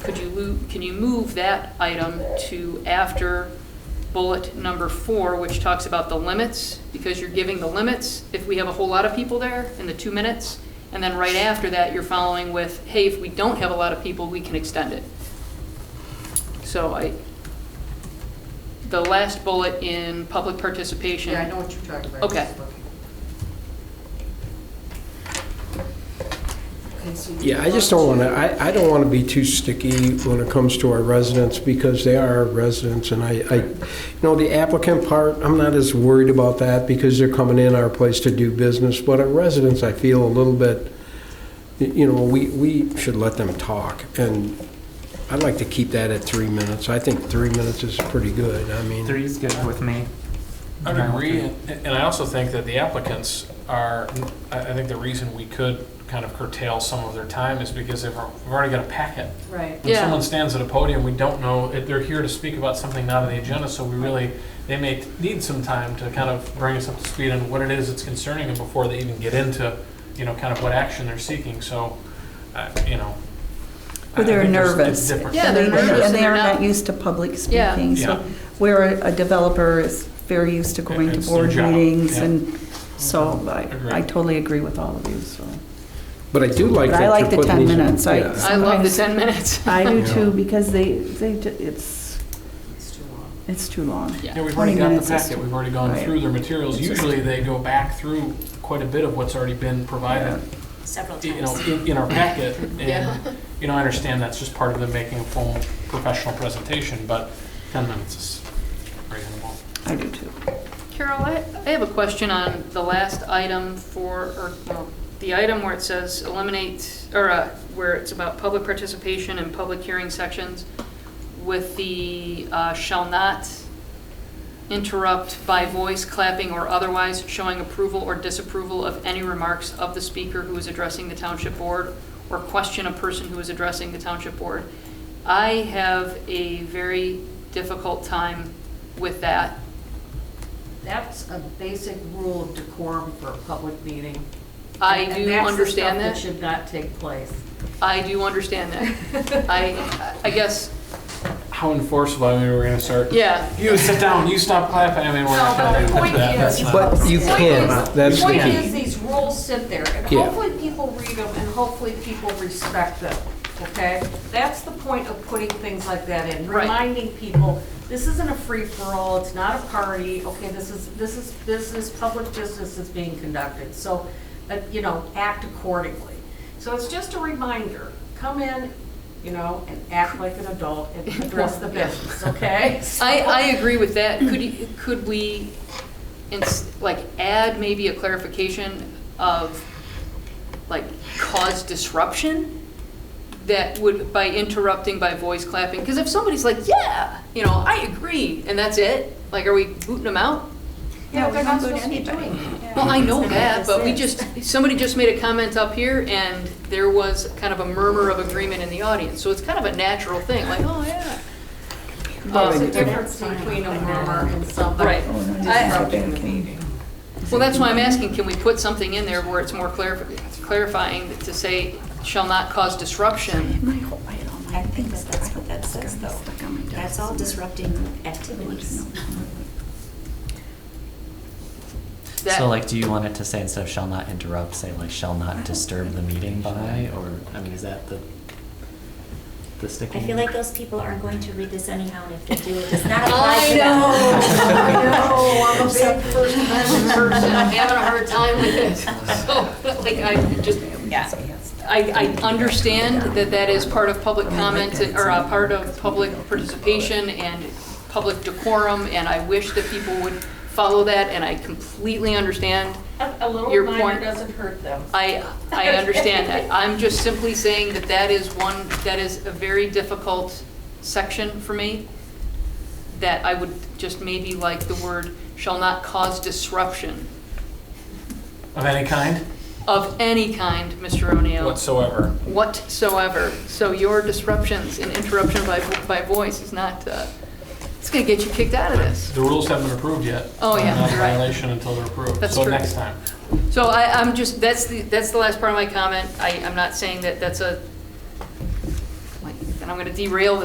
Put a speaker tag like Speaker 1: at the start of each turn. Speaker 1: move, can you move that item to after bullet number four, which talks about the limits? Because you're giving the limits if we have a whole lot of people there in the two minutes. And then right after that, you're following with, hey, if we don't have a lot of people, we can extend it. So I, the last bullet in public participation.
Speaker 2: Yeah, I know what you're talking about.
Speaker 1: Okay.
Speaker 2: Okay, so you
Speaker 3: Yeah, I just don't want to, I, I don't want to be too sticky when it comes to our residents, because they are our residents, and I, I, you know, the applicant part, I'm not as worried about that, because they're coming in our place to do business, but our residents, I feel a little bit, y- you know, we, we should let them talk, and I'd like to keep that at three minutes. I think three minutes is pretty good, I mean,
Speaker 4: Three's good with me.
Speaker 5: I would agree, and and I also think that the applicants are, I I think the reason we could kind of curtail some of their time is because they've al- we've already got a packet.
Speaker 2: Right.
Speaker 5: When
Speaker 1: Yeah.
Speaker 5: someone stands at a podium, we don't know, if they're here to speak about something not on the agenda, so we really, they may need some time to kind of bring us up to speed on what it is that's concerning them before they even get into, you know, kind of what action they're seeking, so, uh, you know. I- I
Speaker 6: Or they're
Speaker 5: think there's-
Speaker 6: nervous.
Speaker 5: It's different.
Speaker 1: Yeah,
Speaker 6: And
Speaker 1: they're
Speaker 6: they-
Speaker 1: nervous and
Speaker 6: And they
Speaker 1: they're
Speaker 6: are
Speaker 1: not-
Speaker 6: not used to public
Speaker 1: Yeah.
Speaker 6: speaking.
Speaker 5: Yeah.
Speaker 6: So where a a developer is very used to going to
Speaker 5: It's their
Speaker 6: board
Speaker 5: job,
Speaker 6: meetings
Speaker 5: yeah.
Speaker 6: and so I I
Speaker 5: Agreed.
Speaker 6: totally agree with all of you, so.
Speaker 3: but I do like
Speaker 6: But I
Speaker 3: that you're
Speaker 6: like the
Speaker 3: putting
Speaker 6: 10
Speaker 3: these-
Speaker 6: minutes, I-
Speaker 3: yeah.
Speaker 1: I love the 10 minutes.
Speaker 6: I do
Speaker 3: Yeah.
Speaker 6: too, because they, they, ju- it's,
Speaker 2: It's too long.
Speaker 6: it's too long.
Speaker 1: Yeah.
Speaker 5: Yeah, we've already got the
Speaker 6: 20 minutes is-
Speaker 5: packet, we've already gone
Speaker 6: right.
Speaker 5: through their materials.
Speaker 6: It's just-
Speaker 5: Usually, they go back through quite a bit of what's already been provided,
Speaker 7: several times.
Speaker 5: you know, in, in our packet.
Speaker 1: Yeah.
Speaker 5: And, you know, I understand that's just part of them making a full professional presentation, but 10 minutes is reasonable.
Speaker 6: I do too.
Speaker 1: Carol, I, I have a question on the last item for, or, well, the item where it says eliminate, or, uh, where it's about public participation and public hearing sections with the, uh, shall not interrupt by voice, clapping, or otherwise showing approval or disapproval of any remarks of the speaker who is addressing the township board or question a person who is addressing the township board. I have a very difficult time with that.
Speaker 2: That's a basic rule of decorum for a public meeting.
Speaker 1: I
Speaker 2: And- and
Speaker 1: do
Speaker 2: that's the
Speaker 1: understand
Speaker 2: stuff
Speaker 1: that.
Speaker 2: should not take place.
Speaker 1: I do understand that. I, I guess,
Speaker 5: How enforceable, I mean, we're gonna start,
Speaker 1: yeah.
Speaker 5: you sit down, you stop clapping, I mean, we're not
Speaker 2: No,
Speaker 5: gonna
Speaker 2: but the
Speaker 5: do
Speaker 2: point
Speaker 5: that. That's
Speaker 2: is-
Speaker 5: not-
Speaker 3: But you
Speaker 2: Point
Speaker 3: can,
Speaker 2: is-
Speaker 3: that's the
Speaker 2: Point
Speaker 3: key.
Speaker 2: is, these rules sit there, and
Speaker 3: Yeah.
Speaker 2: hopefully people read them, and hopefully people respect them, okay? That's the point of putting things like that in,
Speaker 1: Right.
Speaker 2: reminding people, this isn't a free-for-all, it's not a party, okay, this is, this is business, public business is being conducted, so, uh, you know, act accordingly. So it's just a reminder, come in, you know, and act like an adult and address the business, okay?
Speaker 1: I, I agree with that. Could, you- could we, ins- like, add maybe a clarification of, like, cause disruption? That would, by interrupting, by voice clapping? Because if somebody's like, yeah, you know, I agree, and that's it, like, are we booting them out?
Speaker 2: Yeah,
Speaker 7: we
Speaker 2: they're
Speaker 7: don't
Speaker 2: not
Speaker 7: go to
Speaker 2: supposed to be
Speaker 7: anybody.
Speaker 2: doing it.
Speaker 1: Well, I know that,
Speaker 7: That's
Speaker 1: but we
Speaker 7: it.
Speaker 1: just, somebody just made a comment up here, and there was kind of a murmur of agreement in the audience, so it's kind of a natural thing, like, oh, yeah.
Speaker 2: There's
Speaker 1: Um,
Speaker 2: a difference between a murmur Oh, and somebody
Speaker 1: Right.
Speaker 2: disrupting the meeting.
Speaker 1: Well, that's why I'm asking, can we put something in there where it's more clarif- clarifying to say, shall not cause disruption?
Speaker 6: My whole, I had all my
Speaker 7: I think
Speaker 6: things
Speaker 7: that that's
Speaker 6: stuck
Speaker 7: what that
Speaker 6: on my
Speaker 7: says,
Speaker 6: desk,
Speaker 7: though.
Speaker 6: stuck on my desk.
Speaker 7: That's all disrupting activities.
Speaker 1: That-
Speaker 8: So like, do you want it to say instead of shall not interrupt, say like shall not disturb the meeting by, or, I mean, is that the, the
Speaker 7: I
Speaker 8: sticking?
Speaker 7: feel like those people aren't going to read this anyhow, and if they do, it does not apply
Speaker 1: I
Speaker 7: to them.
Speaker 2: know, I know, I'm a big First Amendment
Speaker 1: person, I'm
Speaker 2: person.
Speaker 1: having a hard time with it, so, like, I just,
Speaker 7: Yeah.
Speaker 1: I, I understand that that is part of public comment, or a part of public participation and public decorum, and I wish that people would follow that, and I completely understand.
Speaker 2: A a little
Speaker 1: Your
Speaker 2: reminder
Speaker 1: point.
Speaker 2: doesn't hurt them.
Speaker 1: I, I understand that. I'm just simply saying that that is one, that is a very difficult section for me, that I would just maybe like the word shall not cause disruption
Speaker 5: Of any kind
Speaker 1: of any kind, Mr. O'Neill.
Speaker 5: whatsoever.
Speaker 1: whatsoever. So your disruptions and interruption by, by voice is not, uh, it's going to get you kicked out of this.
Speaker 5: The rules haven't been approved yet.
Speaker 1: Oh, yeah,
Speaker 5: They're Not a
Speaker 1: you're right.
Speaker 5: violation until they're approved.
Speaker 1: That's
Speaker 5: So
Speaker 1: true.
Speaker 5: next time.
Speaker 1: So I, I'm just, that's the, that's the last part of my comment. I, I'm not saying that that's a, like, and I'm gonna derail